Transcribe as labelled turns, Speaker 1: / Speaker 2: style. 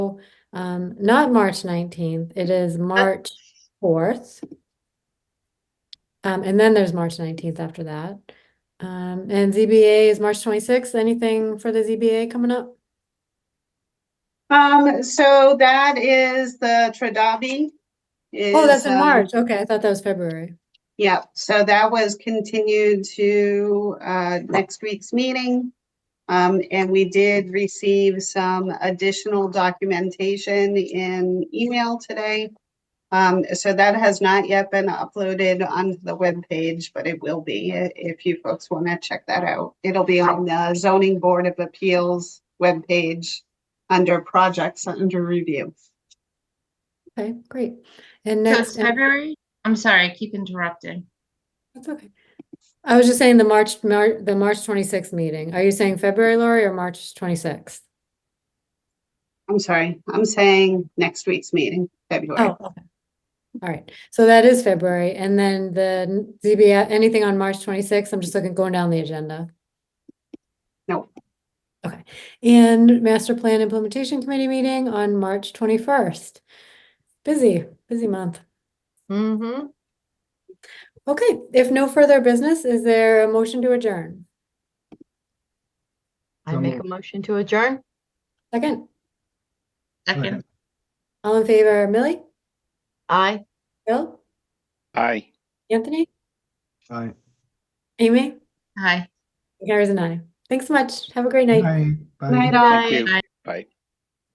Speaker 1: so, um, not March nineteenth, it
Speaker 2: Oh.
Speaker 1: is March fourth. Um, and then there's March nineteenth after that. Um, and ZBA is March twenty-sixth. Anything for the ZBA coming up?
Speaker 2: Um, so that is the Tradabi.
Speaker 1: Oh, that's in
Speaker 2: is, um,
Speaker 1: March. Okay, I thought that was February.
Speaker 2: Yep, so that was continued to uh, next week's meeting. Um, And we did receive some additional documentation in email today. Um, So that has not yet been uploaded onto the webpage, but it will be i- if you folks want to check that out. It'll be on the zoning board of appeals webpage under projects under review.
Speaker 1: Okay, great. And
Speaker 3: So it's
Speaker 1: next, and-
Speaker 3: February? I'm sorry, I keep interrupting.
Speaker 1: that's okay. I was just saying the March, Mar- the March twenty-sixth meeting. Are you saying February, Lori, or March twenty-sixth?
Speaker 2: I'm sorry, I'm saying next week's meeting, February.
Speaker 1: Oh, okay. All right, so that is February, and then the ZBA, anything on March twenty-sixth, I'm just looking, going down the agenda.
Speaker 2: No.
Speaker 1: Okay, and master plan implementation committee meeting on March twenty-first. Busy, busy month.
Speaker 3: Mm-hmm.
Speaker 1: Okay, if no further business, is there a motion to adjourn?
Speaker 4: I
Speaker 5: So
Speaker 4: make a
Speaker 5: moved.
Speaker 4: motion to adjourn.
Speaker 1: Second,
Speaker 3: Second,
Speaker 1: all in favor, Millie,
Speaker 4: Aye.
Speaker 1: Bill,
Speaker 6: Aye.
Speaker 1: Anthony,
Speaker 5: Aye.
Speaker 1: Amy,
Speaker 3: hi.
Speaker 1: Gary's and I. Thanks so much. Have a great night.
Speaker 5: Bye. Bye.
Speaker 2: Night, all.
Speaker 6: Thank you. Bye.